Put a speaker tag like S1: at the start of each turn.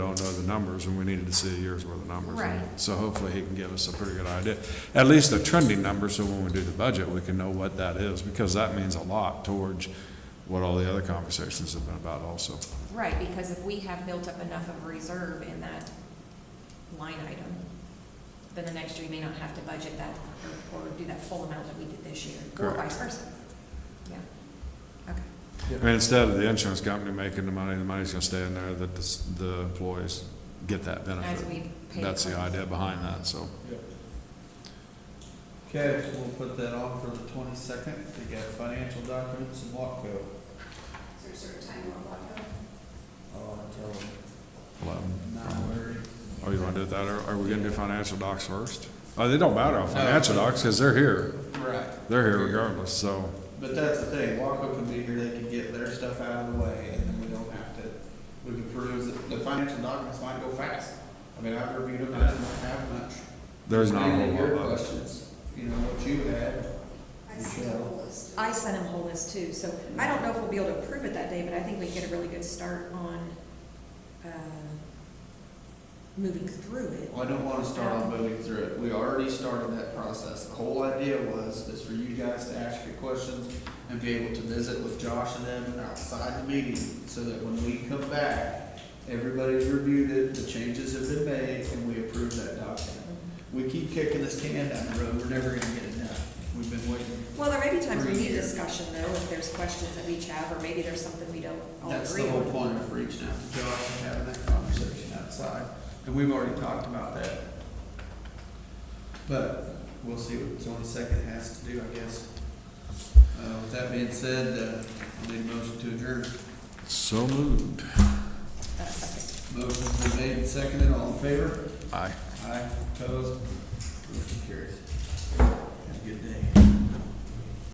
S1: don't know the numbers, and we needed to see a year's worth of numbers.
S2: Right.
S1: So hopefully he can give us a pretty good idea, at least the trending numbers, so when we do the budget, we can know what that is, because that means a lot towards what all the other conversations have been about also.
S2: Right, because if we have built up enough of a reserve in that line item, then the next year you may not have to budget that or- or do that full amount that we did this year, or
S1: Correct.
S2: vice versa. Yeah, okay.
S1: I mean, instead of the insurance company making the money, the money's gonna stay in there, that the, s- the employees get that
S2: As
S1: benefit.
S2: we pay.
S1: That's the
S2: claims.
S1: idea behind that, so.
S3: Okay, so we'll put that on for the twenty-second to get financial documents and WAPCO.
S2: Is there a certain time you want to go?
S3: Oh, until
S1: eleven.
S3: nine thirty.
S1: Oh, you wanna do it that, or are we gonna do financial docs first? Oh, they don't matter on financial docs, cause they're here,
S3: Right,
S1: they're here regardless, so.
S3: but that's the thing, WAPCO can be here, they can get their stuff out of the way, and then we don't have to, we can peruse, it. the financial documents might go fast. I mean, I've reviewed them, I didn't have much.
S1: There's not a
S3: Any of
S1: whole
S3: Your
S1: lot left.
S3: questions, you know, what you had, Michelle.
S2: I sent him whole list too, so I don't know if we'll be able to approve it that day, but I think we get a really good start on, um, moving through it.
S3: Well, I don't wanna start on moving through it, we already started that process, the whole idea was, is for you guys to ask your questions and be able to visit with Josh and them outside the meeting, so that when we come back, everybody's reviewed it, the changes have been made, and we approve that document. We keep kicking this can down the road, we're never gonna get it done, we've been waiting.
S2: Well, there may be times we
S3: Three
S2: need
S3: years.
S2: discussion though, if there's questions that we each have, or maybe there's something we don't all
S3: That's the
S2: agree
S3: whole
S2: on.
S3: point of reaching out to Josh and having that conversation outside, and we've already talked about that. But we'll see what the twenty-second has to do, I guess. Uh, with that being said, uh, I'll need a motion to adjourn.
S1: So moved.
S2: Uh, okay.
S3: Motion's been made and seconded, all in favor?
S1: Aye.
S3: Aye, opposed,